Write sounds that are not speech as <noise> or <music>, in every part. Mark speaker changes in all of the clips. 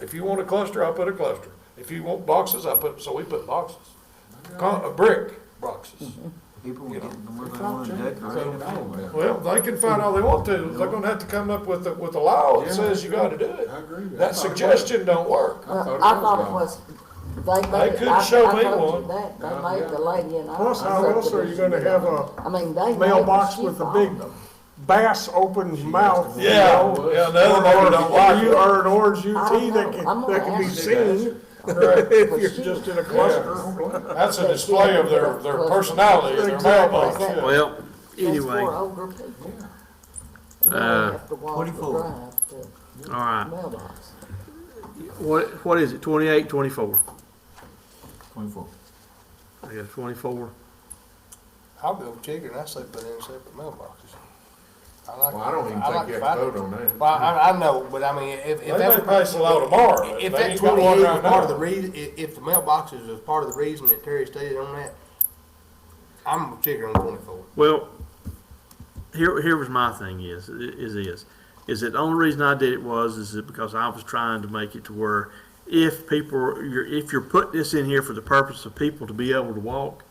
Speaker 1: If you want a cluster, I'll put a cluster. If you want boxes, I put, so we put boxes. Con, uh, brick boxes.
Speaker 2: Mm-hmm.
Speaker 3: People
Speaker 1: You
Speaker 3: were
Speaker 1: know,
Speaker 3: getting what they wanted to decorate at home with.
Speaker 1: Well, they can find all they want to. They're gonna have to come up with, a- with a law that says you gotta do it.
Speaker 2: I agree with
Speaker 1: That suggestion don't work.
Speaker 4: Well, I thought it was, they made.
Speaker 1: They
Speaker 4: it-
Speaker 1: could
Speaker 4: I- I
Speaker 1: show me
Speaker 4: told you
Speaker 1: one.
Speaker 4: that. They made the lady and I.
Speaker 5: Plus, how else are you gonna have a
Speaker 4: I mean, they. made the
Speaker 5: mailbox
Speaker 4: sheep
Speaker 5: with a
Speaker 4: on
Speaker 5: big
Speaker 4: them.
Speaker 5: bass opens mouth? you
Speaker 1: Yeah,
Speaker 5: know,
Speaker 1: yeah, another neighbor don't
Speaker 5: Or
Speaker 1: like
Speaker 5: you
Speaker 1: it.
Speaker 5: are an orange
Speaker 4: I
Speaker 5: UT
Speaker 4: don't
Speaker 5: that
Speaker 4: know. I'm
Speaker 5: can,
Speaker 4: gonna
Speaker 5: that can be
Speaker 4: ask
Speaker 5: seen
Speaker 1: Correct.
Speaker 5: if you're just in a cluster.
Speaker 1: That's a display of their, their personality, their mailbox.
Speaker 4: Exactly.
Speaker 1: yeah.
Speaker 6: Well,
Speaker 4: That's
Speaker 6: anyway,
Speaker 4: for
Speaker 6: all
Speaker 4: older people. You don't
Speaker 6: Uh,
Speaker 4: have to walk the
Speaker 3: 24.
Speaker 4: drive to
Speaker 6: right.
Speaker 4: mailbox.
Speaker 6: What, what is it, twenty-eight, twenty-four?
Speaker 3: Twenty-four.
Speaker 6: I guess twenty-four.
Speaker 7: I'll go chicken, I say put in separate mailboxes. I like.
Speaker 2: Well, I don't even
Speaker 7: I like
Speaker 2: think you
Speaker 7: the
Speaker 2: have to
Speaker 7: fact-
Speaker 2: vote on that.
Speaker 7: Well, I, I know, but I mean, if, if
Speaker 1: They may
Speaker 7: that,
Speaker 1: pass a law tomorrow, but
Speaker 7: if
Speaker 1: they
Speaker 7: that
Speaker 1: ain't got
Speaker 7: twenty-eight
Speaker 1: one
Speaker 7: is
Speaker 1: right
Speaker 7: part of the
Speaker 1: now.
Speaker 7: reason, if, if the mailboxes is part of the reason that Terry stated on that, I'm chicken on twenty-four.
Speaker 6: Well, here, here was my thing is, is this, is that the only reason I did it was, is that because I was trying to make it to where if people, you're, if you're putting this in here for the purpose of people to be able to walk,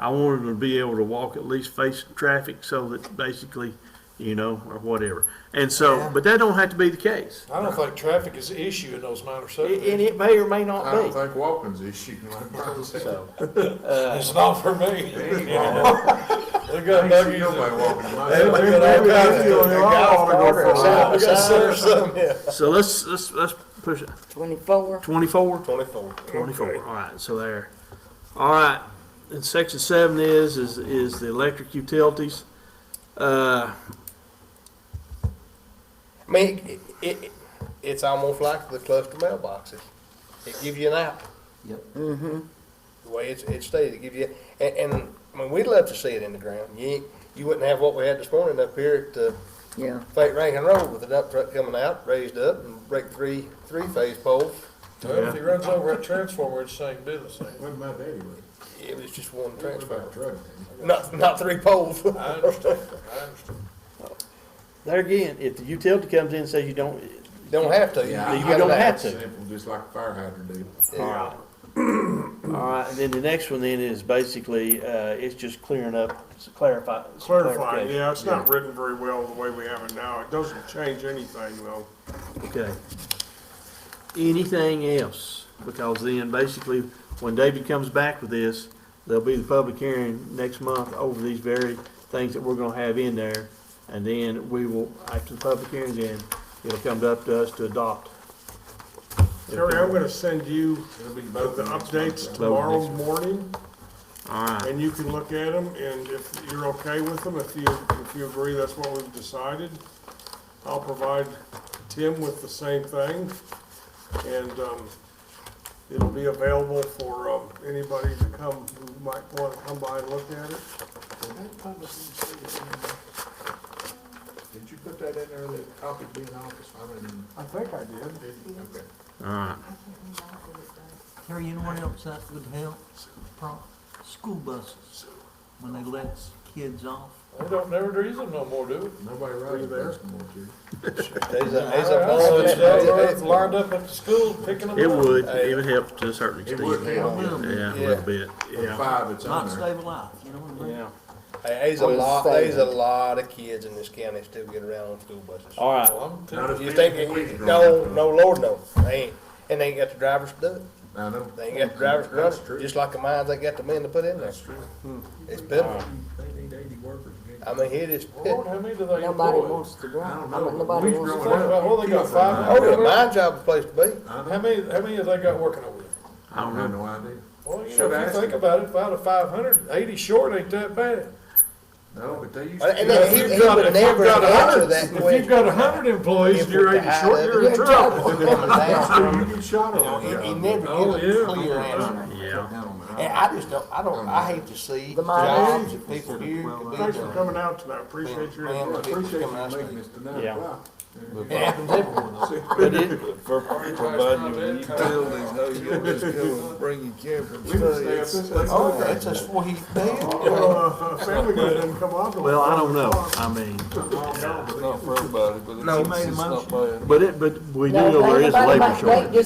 Speaker 6: I wanted them to be able to walk at least face traffic so that basically, you know, or whatever. And so, but that don't have to be the case.
Speaker 1: I don't think traffic is an issue in those minor
Speaker 6: And
Speaker 1: subdivisions.
Speaker 6: it may or may
Speaker 2: I
Speaker 6: not
Speaker 2: don't
Speaker 6: be.
Speaker 2: think walking's an issue,
Speaker 3: <laughs>
Speaker 2: like Brian said.
Speaker 1: It's not for me. <laughs> They got
Speaker 2: Ain't seen
Speaker 1: buggies.
Speaker 2: Nobody walking in my.
Speaker 1: They got all kinds of-
Speaker 5: They all wanna go for a walk.
Speaker 1: We got center some, yeah.
Speaker 6: So let's, let's, let's push it,
Speaker 4: Twenty-four.
Speaker 6: twenty-four?
Speaker 7: Twenty-four.
Speaker 6: Twenty-four, all right, so there. All right, and section seven is, is, is the electric utilities. Uh,
Speaker 7: I mean, it, it, it's almost like the cluster mailboxes. It gives you an out.
Speaker 3: Yep.
Speaker 7: the way it's, it's stated, it gives you, and, and, I mean, we'd love to see it in the ground. You, ain't- you wouldn't have what we had this morning up here at the
Speaker 4: Yeah.
Speaker 7: Fate Rankin Road with the dump truck coming out, raised up and break three, three-phase poles.
Speaker 1: Well, if he runs over a transformer, it's saying do the same.
Speaker 2: When my daddy was,
Speaker 7: It was just one
Speaker 2: he was about
Speaker 7: transfer,
Speaker 2: a truck.
Speaker 7: not, not three poles. <laughs>
Speaker 1: I understand, I understand.
Speaker 6: there again, if the utility comes in and says you don't,
Speaker 7: Don't have to.
Speaker 2: Yeah,
Speaker 6: you
Speaker 7: got
Speaker 6: don't
Speaker 7: an
Speaker 6: have
Speaker 7: axe.
Speaker 6: to.
Speaker 2: Simple, just like a fire hydrant deal.
Speaker 6: all right. uh, <clears throat> All right, and then the next one then is basically, uh, it's just clearing up, it's clarify. it's
Speaker 5: Clarify,
Speaker 6: clarification.
Speaker 5: yeah, it's not written very well the way we have it now. It doesn't change anything though.
Speaker 6: Okay. Anything else? Because then basically, when David comes back with this, there'll be the public hearing next month over these very things that we're gonna have in there. And then we will, after the public hearing's in, it'll come up to us to adopt.
Speaker 5: Terry, I'm gonna send you
Speaker 2: It'll be
Speaker 5: the
Speaker 2: both
Speaker 5: the
Speaker 2: of them.
Speaker 5: updates
Speaker 6: Vote on the
Speaker 5: tomorrow
Speaker 6: next
Speaker 5: morning.
Speaker 6: All right.
Speaker 5: And you can look at them, and if you're okay with them, if you, if you agree that's what we've decided, I'll provide Tim with the same thing, and, um, it'll be available for, um, anybody to come, who might wanna come by and look at it.
Speaker 2: Did you put that in there, that copy being office? I mean,
Speaker 5: I think I did.
Speaker 2: did you? Okay.
Speaker 6: All right.
Speaker 3: Terry, you know what else that would help? Pro- School buses, when they let kids off.
Speaker 1: They don't never use them no more, do
Speaker 2: Nobody rides there anymore, Jerry.
Speaker 7: There's a,
Speaker 1: they?
Speaker 7: there's a ball,
Speaker 1: It's out there, it's
Speaker 7: there's a-
Speaker 1: lined up at the school picking them up.
Speaker 6: It would, it would help to a certain extent.
Speaker 2: It would
Speaker 3: Well,
Speaker 2: help,
Speaker 6: Yeah, a
Speaker 7: Yeah.
Speaker 6: little bit,
Speaker 2: yeah,
Speaker 6: yeah.
Speaker 2: five, it's on
Speaker 3: Not
Speaker 2: there.
Speaker 3: stabilized, you know what I mean?
Speaker 6: Yeah.
Speaker 7: there's a
Speaker 4: What is
Speaker 7: lot,
Speaker 4: saying?
Speaker 7: there's a lot of kids in this county still get around on school buses.
Speaker 6: All right.
Speaker 1: Well, I'm telling
Speaker 2: Not as
Speaker 7: You
Speaker 2: big
Speaker 7: think,
Speaker 2: as we
Speaker 7: it-
Speaker 2: can
Speaker 7: no,
Speaker 2: drive.
Speaker 7: no, Lord, no, they ain't, and they ain't got the drivers to do it.
Speaker 2: I know.
Speaker 7: They ain't got the drivers to run
Speaker 2: That's true.
Speaker 7: it, just like the mines ain't got the men to put in there.
Speaker 2: That's true.
Speaker 7: It's pitiful.
Speaker 2: They need eighty workers.
Speaker 7: I mean, it is
Speaker 1: you,
Speaker 7: pitiful.
Speaker 1: Lord, how many do they
Speaker 4: Nobody
Speaker 1: employ?
Speaker 4: wants to drive.
Speaker 2: I don't
Speaker 4: I mean,
Speaker 2: know.
Speaker 4: nobody
Speaker 2: We've
Speaker 4: wants to
Speaker 2: grown
Speaker 4: drive.
Speaker 2: up.
Speaker 1: Well, they got five.
Speaker 7: Oh, yeah, my job is the place to be.
Speaker 2: I
Speaker 1: How
Speaker 2: know,
Speaker 1: many, how many have they got working over there?
Speaker 2: I don't have no idea.
Speaker 1: Well, you know,
Speaker 2: Should
Speaker 1: if
Speaker 2: ask
Speaker 1: you think
Speaker 2: them.
Speaker 1: about it, if out of five hundred, eighty short ain't that bad.
Speaker 2: No, but they used
Speaker 7: And- and
Speaker 2: to.
Speaker 7: he-
Speaker 1: If
Speaker 7: he
Speaker 1: you've got-
Speaker 7: would
Speaker 1: if you've
Speaker 7: never
Speaker 1: got a
Speaker 7: answer
Speaker 1: hundred-
Speaker 7: that
Speaker 1: If
Speaker 7: question.
Speaker 1: you've got a hundred employees and you're eighty short, you're in trouble.
Speaker 7: trouble.
Speaker 2: You get shot
Speaker 7: You know,
Speaker 2: on.
Speaker 7: he, he
Speaker 2: yeah.
Speaker 7: never
Speaker 1: Oh,
Speaker 7: gives a
Speaker 1: yeah.
Speaker 7: clear answer.
Speaker 6: Yeah.
Speaker 7: And I just don't, I don't, I hate to see
Speaker 4: The mine
Speaker 7: jobs
Speaker 4: is-
Speaker 7: and people here to be
Speaker 5: Thanks for
Speaker 7: done.
Speaker 5: coming out tonight, appreciate your
Speaker 7: Man,
Speaker 5: input.
Speaker 2: Appreciate
Speaker 7: Coming
Speaker 2: you
Speaker 7: out
Speaker 2: making
Speaker 7: state.
Speaker 2: this tonight.
Speaker 6: Yeah.
Speaker 2: Wow.
Speaker 7: It happens everywhere.
Speaker 8: But it, for providing your utilities, no, you'll just go and bring your camper and
Speaker 2: We can stay up this late.
Speaker 7: Oh, that's a sweet deal.
Speaker 5: Well, uh, Family guy didn't come out. till
Speaker 6: Well, I don't know.
Speaker 5: five
Speaker 6: I mean,
Speaker 8: It's not for everybody, but
Speaker 3: No,
Speaker 8: it's,
Speaker 3: made a
Speaker 8: it's not
Speaker 3: motion.
Speaker 8: bad.
Speaker 6: but it, but we do
Speaker 4: No,
Speaker 6: know there is a
Speaker 4: nobody-
Speaker 6: labor
Speaker 4: nobody-
Speaker 6: shortage.